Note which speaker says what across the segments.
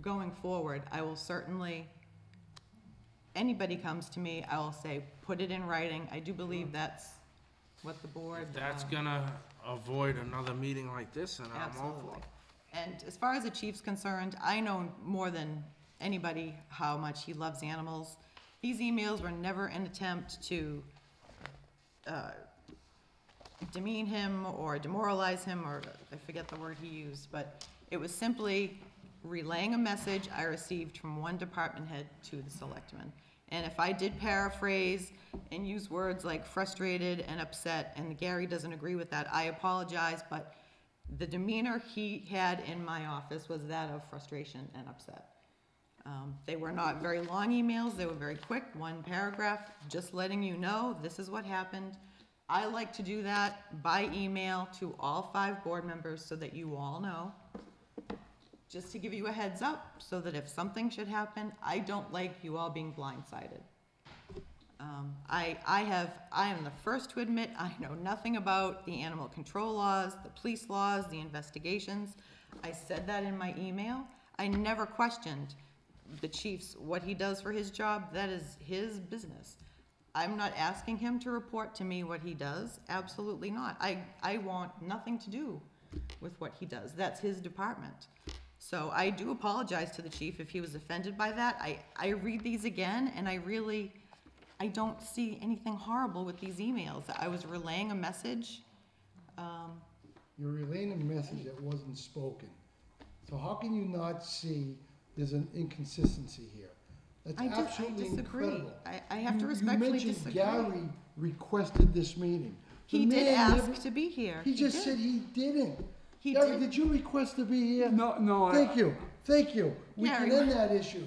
Speaker 1: going forward, I will certainly, anybody comes to me, I will say, put it in writing. I do believe that's what the board.
Speaker 2: That's
Speaker 1: uh,
Speaker 2: gonna avoid another meeting like this, and I'm all for
Speaker 1: Absolutely.
Speaker 2: it.
Speaker 1: And as far as the chief's concerned, I know more than anybody how much he loves animals. These emails were never an attempt to uh, demean him or demoralize him, or I forget the word he used, but it was simply relaying a message I received from one department head to the selectmen. And if I did paraphrase and use words like frustrated and upset, and Gary doesn't agree with that, I apologize, but the demeanor he had in my office was that of frustration and upset. Um, They were not very long emails, they were very quick, one paragraph, just letting you know, this is what happened. I like to do that by email to all five board members so that you all know. Just to give you a heads up, so that if something should happen, I don't like you all being blindsided. Um, I, I have, I am the first to admit, I know nothing about the animal control laws, the police laws, the investigations. I said that in my email. I never questioned the chief's, what he does for his job, that is his business. I'm not asking him to report to me what he does, absolutely not. I, I want nothing to do with what he does, that's his department. So I do apologize to the chief if he was offended by that. I, I read these again, and I really, I don't see anything horrible with these emails. I was relaying a message.
Speaker 3: You're relaying a message that wasn't spoken. So how can you not see there's an inconsistency here? That's
Speaker 1: I dis- I
Speaker 3: absolutely
Speaker 1: disagree.
Speaker 3: incredible.
Speaker 1: I- I have to
Speaker 3: You-
Speaker 1: respectfully disagree.
Speaker 3: You mentioned Gary requested this meeting. The
Speaker 1: He did
Speaker 3: man never-
Speaker 1: ask to be here.
Speaker 3: He just
Speaker 1: did.
Speaker 3: said he didn't.
Speaker 1: He
Speaker 3: Gary,
Speaker 1: did.
Speaker 3: did you request to be here?
Speaker 4: No, no, I-
Speaker 3: Thank you, thank you. We
Speaker 1: Gary,
Speaker 3: can end that issue.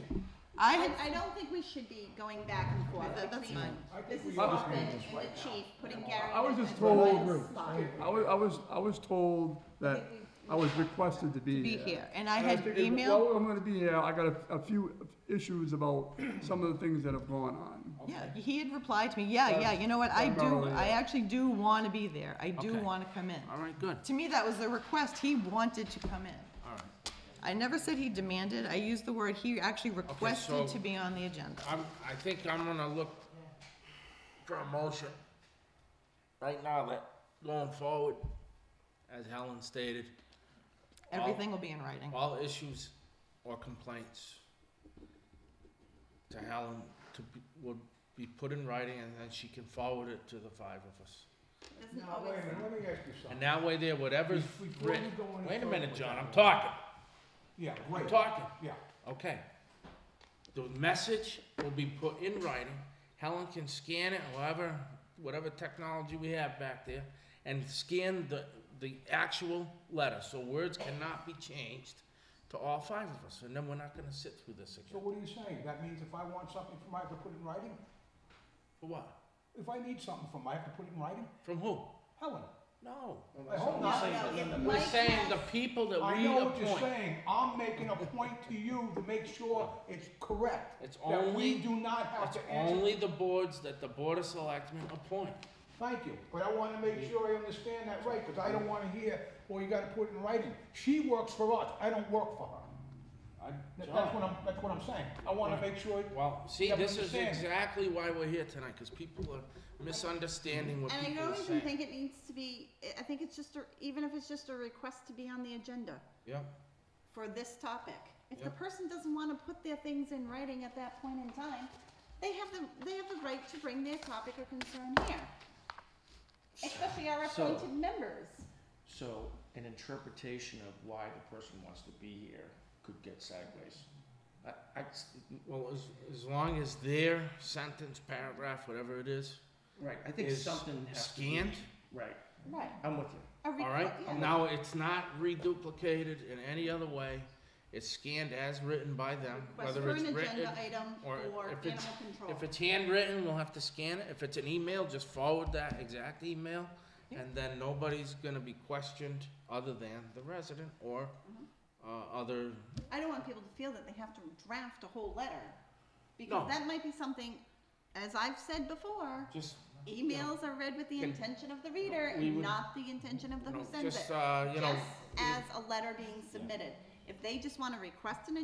Speaker 1: I
Speaker 5: I,
Speaker 1: had,
Speaker 5: I don't think we should be going back and forth
Speaker 1: That- that's
Speaker 5: between
Speaker 1: fine.
Speaker 5: this is
Speaker 4: ought to
Speaker 5: Hoffman and the chief, putting Gary.
Speaker 4: I was
Speaker 5: in the
Speaker 4: just
Speaker 5: middle
Speaker 4: told-
Speaker 5: of the
Speaker 3: I
Speaker 5: spot.
Speaker 4: I was, I was, I was told that I was requested to be
Speaker 1: be
Speaker 4: here.
Speaker 1: here, and I
Speaker 4: And
Speaker 1: had
Speaker 4: figured,
Speaker 1: emailed,
Speaker 4: Well, I'm gonna be here, I got a, a few issues about some of the things that have gone on.
Speaker 1: yeah, he had replied to me, yeah, yeah, you know what, I do,
Speaker 4: Primarily,
Speaker 1: I
Speaker 4: yeah.
Speaker 1: actually do wanna be there. I do
Speaker 2: Okay.
Speaker 1: wanna come in.
Speaker 2: All right, good,
Speaker 1: To me, that was the request. He wanted to come in.
Speaker 2: all right.
Speaker 1: I never said he demanded. I used the word, he actually requested
Speaker 2: so-
Speaker 1: to be on the agenda.
Speaker 2: I'm, I think I'm gonna look for a motion right now that going forward, as Helen stated, I'll-
Speaker 1: Everything will be in writing.
Speaker 2: all issues or complaints to Helen to be, would be put in writing and then she can forward it to the five of us.
Speaker 5: Doesn't
Speaker 6: Now, wait
Speaker 5: always-
Speaker 6: a minute, let me ask you
Speaker 2: And
Speaker 6: something.
Speaker 2: that way there, whatever's
Speaker 6: Before you
Speaker 2: written,
Speaker 6: go any
Speaker 2: wait a
Speaker 6: further
Speaker 2: minute,
Speaker 6: with
Speaker 2: John,
Speaker 6: that,
Speaker 2: I'm talking,
Speaker 6: Yeah,
Speaker 2: I'm
Speaker 6: great,
Speaker 2: talking.
Speaker 6: yeah.
Speaker 2: Okay. The message will be put in writing. Helen can scan it, however, whatever technology we have back there, and scan the, the actual letter, so words cannot be changed to all five of us, and then we're not gonna sit through this
Speaker 6: So
Speaker 2: again.
Speaker 6: what are you saying? That means if I want something from, I have to put it in writing?
Speaker 2: For what?
Speaker 6: If I need something from, I have to put it in writing?
Speaker 2: From who?
Speaker 6: Helen,
Speaker 2: No.
Speaker 6: I hope not.
Speaker 2: We're
Speaker 5: Mike
Speaker 2: saying the
Speaker 5: has-
Speaker 2: people that
Speaker 6: I
Speaker 2: we
Speaker 6: know what you're
Speaker 2: appoint.
Speaker 6: saying. I'm making a point to you to make sure it's correct.
Speaker 2: It's
Speaker 6: That
Speaker 2: only-
Speaker 6: we do not have
Speaker 2: It's
Speaker 6: to answer.
Speaker 2: only the boards that the Board of Selectmen appoint.
Speaker 6: Thank you, but I wanna make sure I understand that right, because I don't wanna hear, well, you gotta put it in writing. She works for us. I don't work for her. That- That's what I'm, that's what I'm saying. I wanna make sure.
Speaker 2: Well, see,
Speaker 6: that we
Speaker 2: this is
Speaker 6: understand.
Speaker 2: exactly why we're here tonight, because people are misunderstanding what
Speaker 5: And I
Speaker 2: people are
Speaker 5: don't even
Speaker 2: saying.
Speaker 5: think it needs to be, I- I think it's just, a- even if it's just a request to be on the agenda
Speaker 2: Yep,
Speaker 5: for this topic. If the
Speaker 2: Yep.
Speaker 5: person doesn't wanna put their things in writing at that point in time, they have the, they have the right to bring their topic or concern here. Especially our
Speaker 7: So-
Speaker 5: appointed members.
Speaker 7: So an interpretation of why the person wants to be here could get sideways. I, I,
Speaker 2: well, as, as long as their sentence, paragraph, whatever it is,
Speaker 7: right, I think
Speaker 2: is
Speaker 7: something has to be.
Speaker 2: scanned,
Speaker 7: Right,
Speaker 5: Right.
Speaker 7: I'm with you.
Speaker 5: A requ-
Speaker 2: all right?
Speaker 5: yeah.
Speaker 2: Now, it's not reduplicated in any other way. It's scanned as written by them,
Speaker 5: Request
Speaker 2: whether
Speaker 5: for
Speaker 2: it's
Speaker 5: an
Speaker 2: written.
Speaker 5: agenda item
Speaker 2: or
Speaker 5: or
Speaker 2: if it's-
Speaker 5: animal control.
Speaker 2: If it's handwritten, we'll have to scan it. If it's an email, just forward that exact email. And then nobody's gonna be questioned other than the resident or, uh, other
Speaker 5: I don't want people to feel that they have to draft a whole letter.
Speaker 2: No.
Speaker 5: Because that might be something, as I've said before,
Speaker 2: Just,
Speaker 5: emails are read with the
Speaker 2: Can-
Speaker 5: intention of the reader
Speaker 2: we
Speaker 5: and
Speaker 2: would-
Speaker 5: not the intention of the
Speaker 2: you
Speaker 5: who
Speaker 2: know,
Speaker 5: sends it.
Speaker 2: just, uh, you know.
Speaker 5: Just as a letter being submitted. If they just wanna request an